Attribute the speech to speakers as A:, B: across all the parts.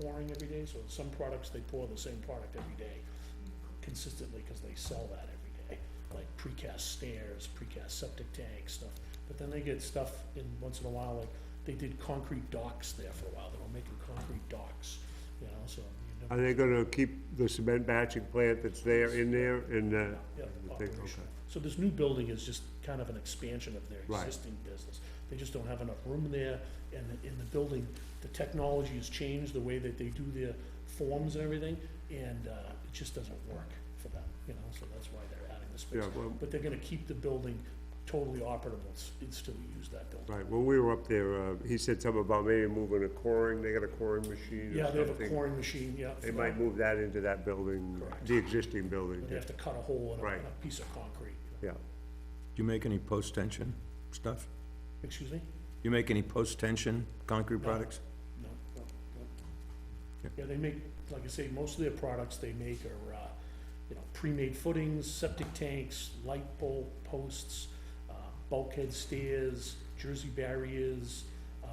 A: pouring every day, so some products, they pour the same product every day consistently, because they sell that every day, like precast stairs, precast septic tanks, stuff. But then they get stuff in, once in a while, like, they did concrete docks there for a while, they were making concrete docks, you know, so. you
B: Are
A: never-
B: they gonna keep the cement batching plant that's there in there and, uh?
A: Yeah,
B: I think,
A: operational.
B: okay.
A: So this new building is just kind of an expansion of their
B: Right.
A: existing business. They just don't have enough room there, and the- in the building, the technology has changed, the way that they do their forms and everything, and uh, it just doesn't work for them, you know, so that's why they're adding the space.
B: Yeah, well-
A: But they're gonna keep the building totally operable s- and still use that building.
B: Right, when we were up there, uh, he said something about maybe moving a coring, they got a coring machine or
A: Yeah, they have a
B: something.
A: pouring machine, yeah.
B: They
A: for
B: might
A: that.
B: move that into that building,
A: Correct.
B: the existing building,
A: They have to cut a hole in a-
B: Right.
A: in a piece of concrete.
B: yeah.
C: Do you make any post-tension stuff?
A: Excuse me?
C: You make any post-tension concrete
A: No.
C: products?
A: No, no, no.
C: Yeah.
A: Yeah, they make, like I say, most of their products they make are, uh, you know, pre-made footings, septic tanks, light bulb posts, uh, bulkhead stairs, jersey barriers, uh,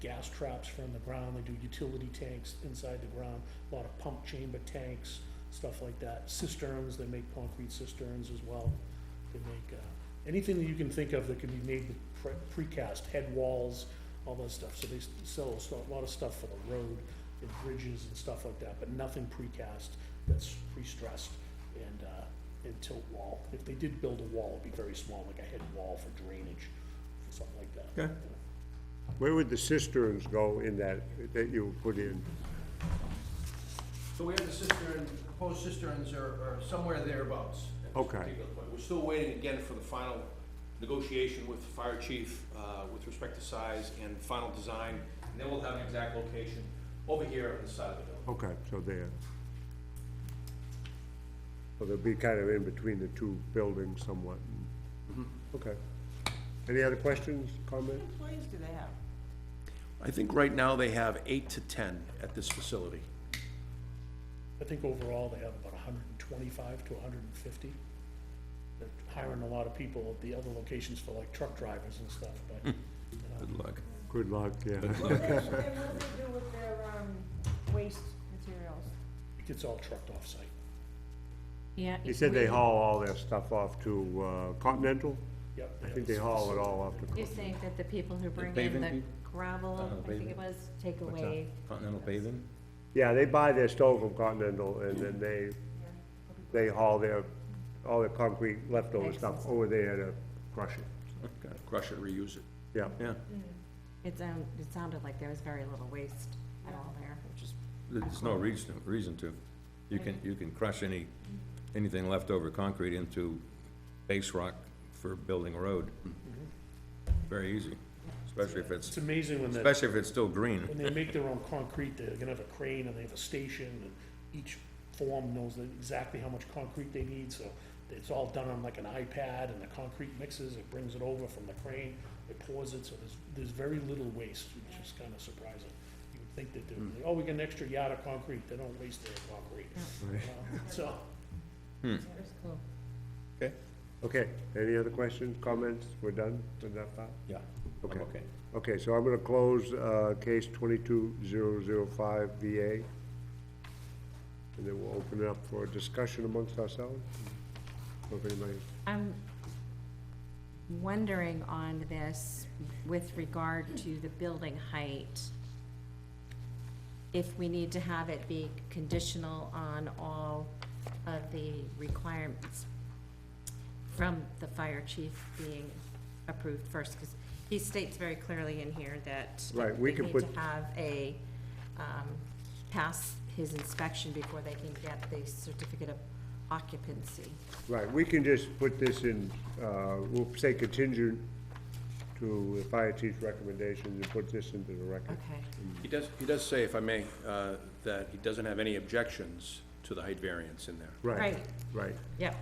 A: gas traps from the ground, they do utility tanks inside the ground, a lot of pump chamber tanks, stuff like that, cisterns, they make concrete cisterns as well. They make, uh, anything that you can think of that can be made with pre- precast, head walls, all that stuff. So they s- sell a so- a lot of stuff for the road and bridges and stuff like that, but nothing precast that's pre-stressed and, uh, and tilt wall. If they did build a wall, it'd be very small, like a head wall for drainage, something like that.
C: Okay.
B: Where would the cisterns go in that, that you put in?
D: So we have the cistern, proposed cisterns are, are somewhere thereabouts. at this
B: Okay.
D: particular point. We're still waiting again for the final negotiation with the fire chief, uh, with respect to size and final design. And then we'll have an exact location over here on the side of the building.
B: Okay, so there. So they'll be kind of in between the two buildings somewhat. Okay. Any other questions, comments?
E: employees do they have?
D: I think right now they have eight to ten at this facility.
A: I think overall, they have about hundred and twenty-five to hundred and fifty. They're hiring a lot of people at the other locations for like truck drivers and stuff, but, you know,
C: Good luck.
B: Good luck, yeah.
E: And what do they do with their, um, waste materials?
A: it gets all trucked off-site.
F: Yeah.
B: He
F: it's
B: said they
F: really-
B: haul all their stuff off to uh, Continental?
A: Yep.
B: I
A: have
B: think
A: a
B: they haul it all off to
F: You're
B: Continental.
F: saying that the people who bring in
C: paving
F: the
C: people?
F: gravel,
C: Uh,
F: I think
C: paving.
F: it was, take
C: What's that?
F: away.
C: Continental paving?
B: Yeah, they buy their stove from Continental and then they, they haul their, all their concrete leftover stuff over there to crush it.
C: Okay.
D: Crush it, reuse it.
B: Yeah.
C: Yeah,
F: It sound it sounded like there was very little waste at all there, which is
C: there's no reason, reason to. You can, you can crush any, anything left over concrete into base rock for building a road. Very easy, especially if
A: It's
C: it's,
A: amazing when they,
C: especially if it's still green.
A: when they make their own concrete, they're gonna have a crane and they have a station, and each form knows that exactly how much concrete they need, so it's all done on like an iPad, and the concrete mixes, it brings it over from the crane, it pours it, so there's, there's very little waste, which is kinda surprising. You would think that they're, oh, we get an extra yard of concrete, they don't waste their concrete, you know? so.
C: Okay?
B: Okay, any other questions, comments? We're done with that part?
C: Yeah.
B: Okay. Okay, so I'm gonna close, uh, case twenty-two zero zero five VA. And then we'll open it up for a discussion amongst ourselves. If anybody,
F: I'm wondering on this with regard to the building height, if we need to have it be conditional on all of the requirements from the fire chief being approved first, because he states very clearly in here that
B: Right, we
F: they
B: can
F: need
B: put-
F: to have a, um, pass his inspection before they can get the certificate of occupancy.
B: right, we can just put this in, uh, we'll say contingent to the fire chief's recommendations and put this into the record.
F: Okay.
D: He does, he does say, if I may, uh, that he doesn't have any objections to the height variance in there.
B: Right,
F: Right.
B: right.
F: Yep.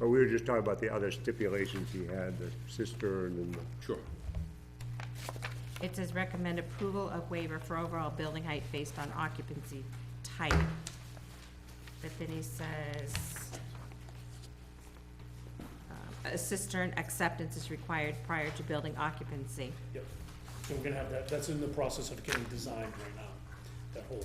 B: But we were just talking about the other stipulations he had, the cistern and the
D: Sure.
F: It says recommend approval of waiver for overall building height based on occupancy type. But then he says, um, a cistern acceptance is required prior to building occupancy.
A: Yep, so we're gonna have that, that's in the process of getting designed right now, that whole